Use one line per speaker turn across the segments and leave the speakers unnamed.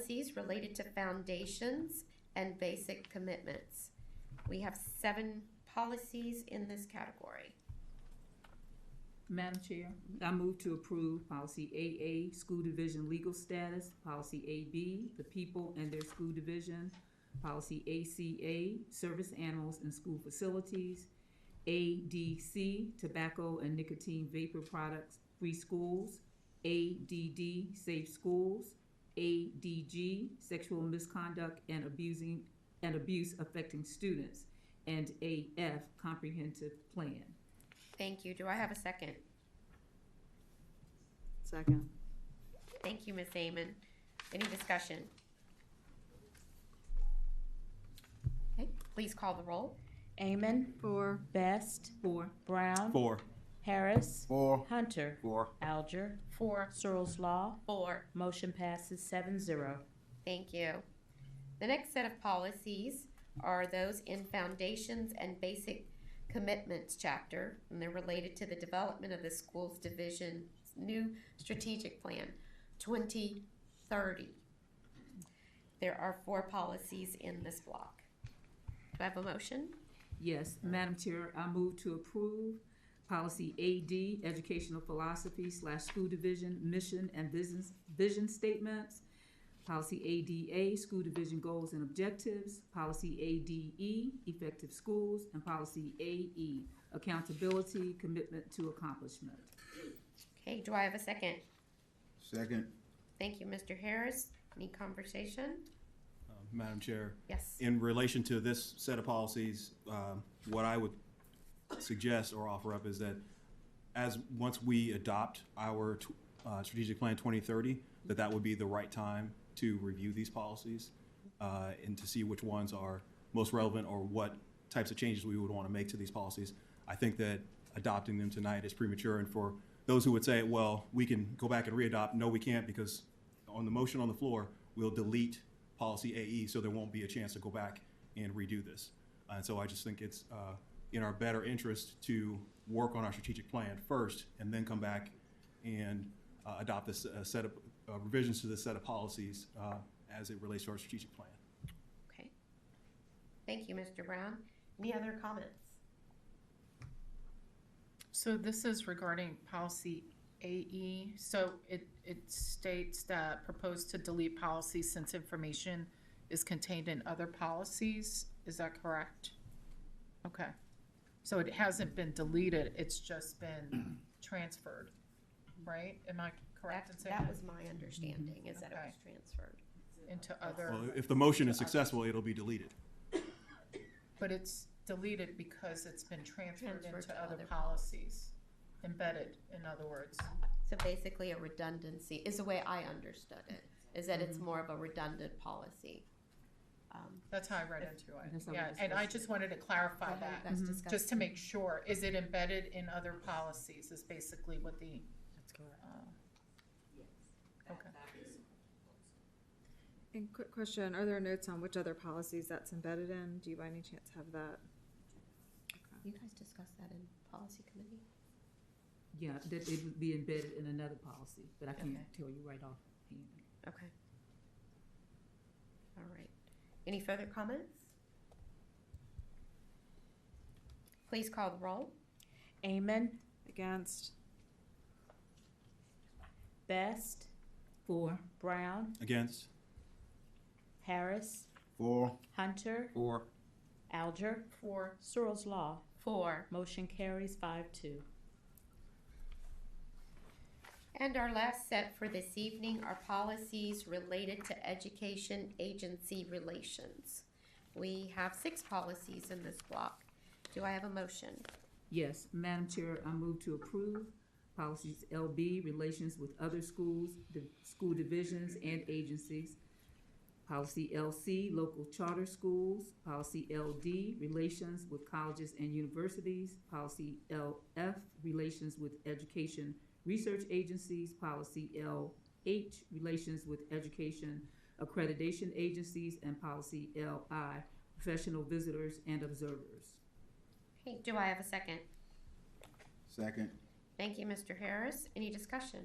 fees related to foundations and basic commitments. We have seven policies in this category.
Madam Chair,
I move to approve policy AA, school division legal status, policy AB, the people and their school division, policy ACA, service animals and school facilities, ADC, tobacco and nicotine vapor products, free schools, ADD, safe schools, ADG, sexual misconduct and abusing, and abuse affecting students, and AF, comprehensive plan.
Thank you. Do I have a second?
Second.
Thank you, Ms. Amon. Any discussion? Okay, please call the roll.
Amon.
Four.
Best.
Four.
Brown.
Four.
Harris.
Four.
Hunter.
Four.
Alger.
Four.
Searles Law.
Four.
Motion passes seven zero.
Thank you. The next set of policies are those in Foundations and Basic Commitments chapter, and they're related to the development of the school's division's new strategic plan, 2030. There are four policies in this block. Do I have a motion?
Yes, Madam Chair, I move to approve policy AD, educational philosophy slash school division, mission and business, vision statements. Policy ADA, school division goals and objectives. Policy ADE, effective schools. And policy AE, accountability, commitment to accomplishment.
Okay, do I have a second?
Second.
Thank you, Mr. Harris. Any conversation?
Madam Chair,
Yes.
in relation to this set of policies, um, what I would suggest or offer up is that as, once we adopt our tw- uh, strategic plan 2030, that that would be the right time to review these policies uh, and to see which ones are most relevant or what types of changes we would want to make to these policies. I think that adopting them tonight is premature, and for those who would say, well, we can go back and re-adopt, no, we can't, because on the motion on the floor, we'll delete policy AE, so there won't be a chance to go back and redo this. And so I just think it's uh, in our better interest to work on our strategic plan first and then come back and uh, adopt this uh, set of uh, revisions to this set of policies uh, as it relates to our strategic plan.
Okay. Thank you, Mr. Brown. Any other comments?
So this is regarding policy AE. So it, it states that proposed to delete policy since information is contained in other policies. Is that correct? Okay. So it hasn't been deleted, it's just been transferred, right? Am I correct in
That,
saying
that
that?
was my understanding, is that it was
Okay.
transferred.
Into
Well,
other,
if the motion is successful, it'll be deleted.
but it's deleted because it's been transferred
Transferred
into
to
other
other
policies. Embedded, in other words.
So basically, a redundancy is the way I understood it, is that
Mm-hmm.
it's more of a redundant policy. Um,
That's how I read into it.
That's how we
Yeah, and I just wanted to clarify that.
That's discussed.
Just to make sure, is it embedded in other policies is basically what the,
That's correct.
uh, okay.
And quick question, are there notes on which other policies that's embedded in? Do you by any chance have that?
You guys discussed that in policy committee?
Yeah, that it would be embedded in another policy, but I
Okay.
can't tell you right offhand.
Okay. All right. Any further comments? Please call the roll.
Amon.
Against?
Best.
Four.
Brown.
Against?
Harris.
Four.
Hunter.
Four.
Alger.
For,
Searles Law.
Four.
Motion carries five two.
And our last set for this evening are policies related to education agency relations. We have six policies in this block. Do I have a motion?
Yes, Madam Chair, I move to approve policies LB, relations with other schools, the school divisions and agencies. Policy LC, local charter schools. Policy LD, relations with colleges and universities. Policy LF, relations with education research agencies. Policy LH, relations with education accreditation agencies. And policy LI, professional visitors and observers.
Hey, do I have a second?
Second.
Thank you, Mr. Harris. Any discussion?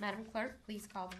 Madam Clerk, please call the